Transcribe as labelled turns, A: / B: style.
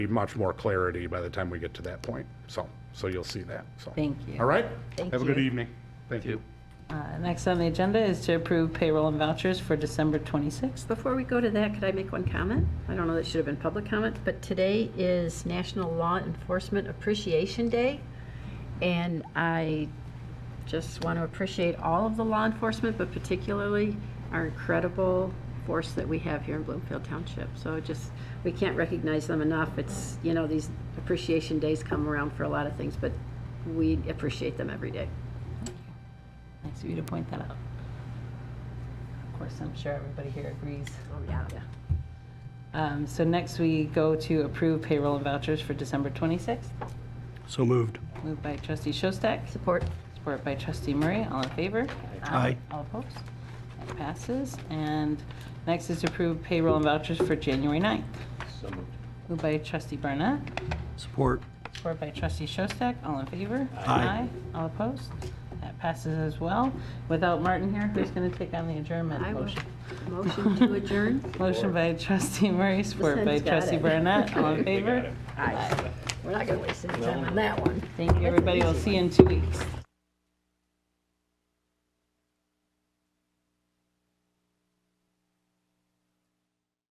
A: be much more clarity by the time we get to that point. So, so you'll see that, so.
B: Thank you.
A: All right?
B: Thank
A: Have a good
B: you.
A: evening. Thank you.
B: Uh, Next on the agenda is to approve payroll and vouchers for December 26th.
C: Before we go to that, could I make one comment? I don't know, that should have been public comment, but today is National Law Enforcement Appreciation Day. And I just want to appreciate all of the law enforcement, but particularly our incredible force that we have here in Bloomfield Township. So just, we can't recognize them enough. It's, you know, these appreciation days come around for a lot of things, but we appreciate them every day.
B: Nice of you to point that out. Of course, I'm sure everybody here agrees.
C: Oh, yeah.
B: Um, So next, we go to approve payroll and vouchers for December 26th.
D: So moved.
B: Moved by trustee Shostak,
C: Support.
B: supported by trustee Murray. All in favor?
D: Aye.
B: All opposed? That passes. And next is to approve payroll and vouchers for January 9th.
E: So moved.
B: Moved by trustee Barnett,
D: Support.
B: Support by trustee Shostak, all in favor?
D: Aye.
B: All opposed? That passes as well. Without Martin here, who's going to take on the adjournment
C: I will.
B: motion?
C: Motion to adjourn.
B: Motion by trustee Murray, support by
C: Listen's got
B: trustee
C: it.
B: Barnett, all in favor?
C: Aye. We're not going to waste any time on that one.
B: Thank you, everybody, we'll see you in two weeks.